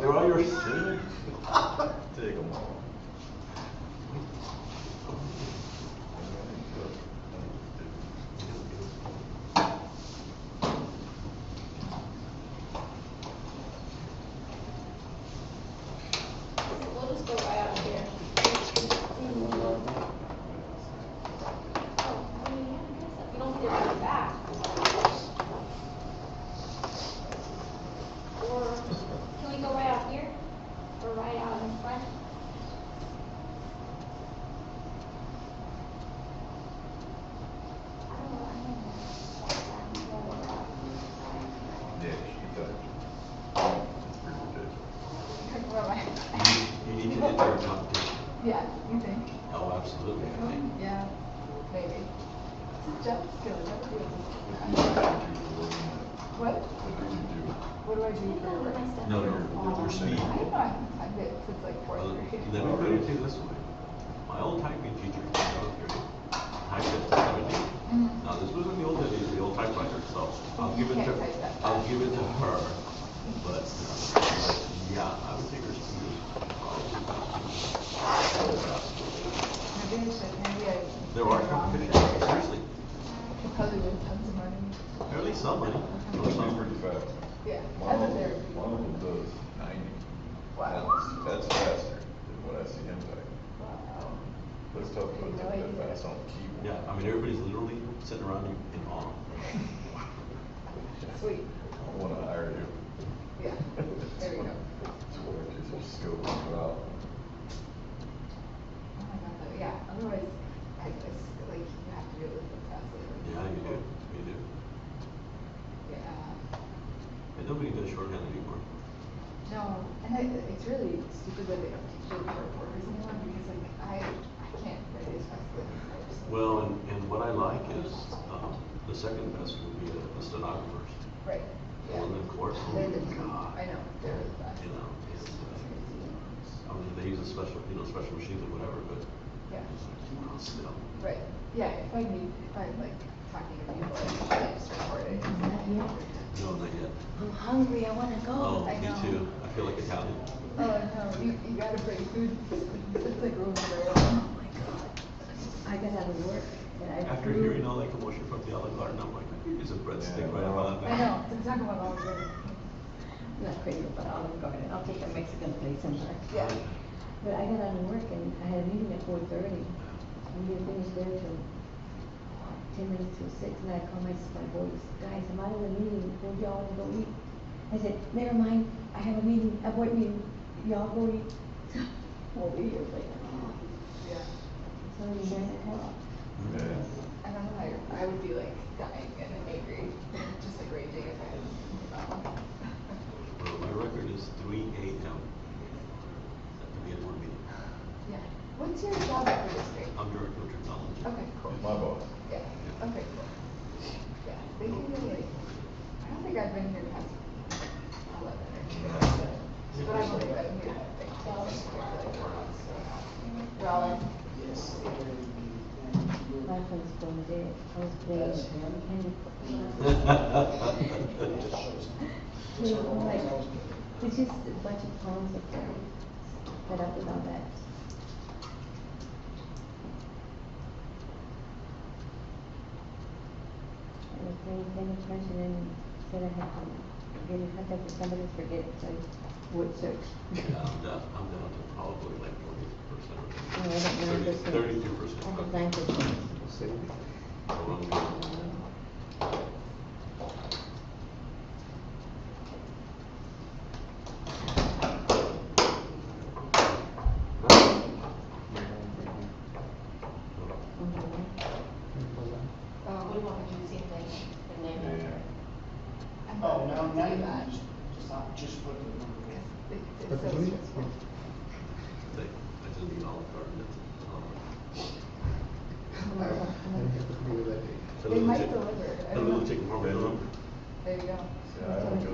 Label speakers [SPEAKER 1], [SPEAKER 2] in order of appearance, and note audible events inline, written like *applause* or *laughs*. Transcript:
[SPEAKER 1] 流浪又是谐音，这个嘛。
[SPEAKER 2] We'll just go right out of here. Oh, I mean, yeah, I guess that- we don't have to go back. Or, can we go right out here? Or right out in front? I don't know, I mean, that's more work.
[SPEAKER 1] Yeah, she does. It's pretty ridiculous.
[SPEAKER 3] Where am I?
[SPEAKER 4] You need to get there, Tom.
[SPEAKER 3] Yeah, you think?
[SPEAKER 4] Oh, absolutely, I think.
[SPEAKER 3] Yeah, maybe. This is Jeff's skill, Jeff feels it.
[SPEAKER 1] What do you do for work and What
[SPEAKER 3] What,
[SPEAKER 1] do you do?
[SPEAKER 3] what do I
[SPEAKER 2] Can
[SPEAKER 3] do
[SPEAKER 2] you
[SPEAKER 3] for
[SPEAKER 2] go with
[SPEAKER 3] work?
[SPEAKER 2] my step?
[SPEAKER 4] No, you're, you're
[SPEAKER 3] I
[SPEAKER 4] speed.
[SPEAKER 3] don't know, I haven't typed it since like
[SPEAKER 4] Well,
[SPEAKER 3] fourth grade.
[SPEAKER 4] Let me put it to you this way. My old typing teacher, when I was here, typed at seventy.
[SPEAKER 3] Mhm.
[SPEAKER 4] Now, this was in the old days, the old typewriter, so I'll give it
[SPEAKER 3] You can't type
[SPEAKER 4] to,
[SPEAKER 3] that
[SPEAKER 4] I'll
[SPEAKER 3] fast.
[SPEAKER 4] give it to her. But, uh, but, yeah, I would take her speed. probably.
[SPEAKER 3] Maybe I should, maybe I.
[SPEAKER 4] There are companies, seriously,
[SPEAKER 3] She Probably with tons of money.
[SPEAKER 4] barely somebody.
[SPEAKER 1] Well, she's pretty fast.
[SPEAKER 3] Yeah,
[SPEAKER 1] One
[SPEAKER 3] as
[SPEAKER 1] of
[SPEAKER 3] a
[SPEAKER 1] them,
[SPEAKER 3] therapy.
[SPEAKER 1] one of them does ninety.
[SPEAKER 3] Wow.
[SPEAKER 1] That's that's faster than what I see him type.
[SPEAKER 3] Wow.
[SPEAKER 1] Let's talk about that, that fast on the keyboard.
[SPEAKER 4] Yeah, I mean, everybody's literally sitting around in in awe.
[SPEAKER 3] Sweet,
[SPEAKER 1] I wanna hire you.
[SPEAKER 3] yeah, there you go.
[SPEAKER 1] It's work, it's just scope it out.
[SPEAKER 3] Oh my God, but yeah, otherwise, I just, like, you have to do it with the professor.
[SPEAKER 4] Yeah, you do, you do.
[SPEAKER 3] Yeah.
[SPEAKER 4] And nobody does shorthand anymore.
[SPEAKER 3] No, and it, it's really stupid that they don't teach you short words anymore, because like, I, I can't write as fast as I used to.
[SPEAKER 4] Well, and, and what I like is, um, the second best would be a- a stenographer,
[SPEAKER 3] Right, yeah.
[SPEAKER 4] Well, of course.
[SPEAKER 3] They're the,
[SPEAKER 4] God.
[SPEAKER 3] I know, they're the best.
[SPEAKER 4] you know, and,
[SPEAKER 3] It's crazy.
[SPEAKER 4] uh, I mean, they use a special, you know, special machines or whatever, but
[SPEAKER 3] Yeah,
[SPEAKER 4] uh, still.
[SPEAKER 3] right, yeah, if I need, if I'm like talking to people, I can just record it.
[SPEAKER 4] No, not yet.
[SPEAKER 5] I'm hungry, I wanna go.
[SPEAKER 4] Oh,
[SPEAKER 3] I
[SPEAKER 4] me
[SPEAKER 3] know.
[SPEAKER 4] too. I feel like Italian.
[SPEAKER 3] Oh, no, you, you gotta bring food, *laughs* it's like room for
[SPEAKER 5] Oh my god. I got out of work and I.
[SPEAKER 4] After
[SPEAKER 5] flew-
[SPEAKER 4] hearing all that commotion from the other garden, I'm like, I could use a breadstick right about
[SPEAKER 3] it.
[SPEAKER 4] now.
[SPEAKER 3] I know, it's not going all good.
[SPEAKER 5] I'm Not crazy about Olive Garden. I'll take a Mexican place sometime.
[SPEAKER 3] Yeah,
[SPEAKER 5] But I got out of work and I had a meeting at four thirty. We didn't finish there till ten minutes till six and I called my, my boys, guys, I'm out of the meeting. Would y'all wanna go eat? I said, never mind, I have a meeting, a board meeting. Y'all go eat. *laughs* We'll be here later.
[SPEAKER 3] yeah.
[SPEAKER 5] So we nine o'clock.
[SPEAKER 1] Yeah.
[SPEAKER 3] I don't know, I, I would be like dying and angry, just like raging if I had. um,
[SPEAKER 4] Well, my record is three AM. At the Edward meeting.
[SPEAKER 3] Yeah, what's your job at the district?
[SPEAKER 4] I'm director of technology.
[SPEAKER 3] Okay, cool,
[SPEAKER 1] It's my boss.
[SPEAKER 3] yeah, okay, cool. Yeah, they can really, I don't think I've been here past eleven or twelve. But I've only been here like twelve, like four months. so. Well,
[SPEAKER 5] My phone's going dead. I was playing Candy Crush. They were like, it's just a bunch of phones up there, fed up with all that. I was playing Candy Crush and then said I had to get in contact with somebody, forget it, so I would search.
[SPEAKER 4] Yeah, I'm down, I'm down to probably like forty percent.
[SPEAKER 5] No, I don't know, this one.
[SPEAKER 4] Thirty-two percent.
[SPEAKER 5] I have nine percent.
[SPEAKER 2] We
[SPEAKER 3] um,
[SPEAKER 2] want to do the same thing, but
[SPEAKER 1] Yeah.
[SPEAKER 2] then-
[SPEAKER 3] I'm not
[SPEAKER 6] Oh, no,
[SPEAKER 3] gonna
[SPEAKER 6] not
[SPEAKER 3] do
[SPEAKER 6] even,
[SPEAKER 3] that,
[SPEAKER 6] just, just, uh, just put the number in.
[SPEAKER 3] because it- it's so stressful.
[SPEAKER 4] They, I just need Olive Garden, that's it. Olive Garden.
[SPEAKER 3] They might deliver, I
[SPEAKER 4] A
[SPEAKER 3] don't
[SPEAKER 4] little
[SPEAKER 3] know.
[SPEAKER 4] chicken parmesan.
[SPEAKER 3] There you go.
[SPEAKER 1] Yeah, I don't go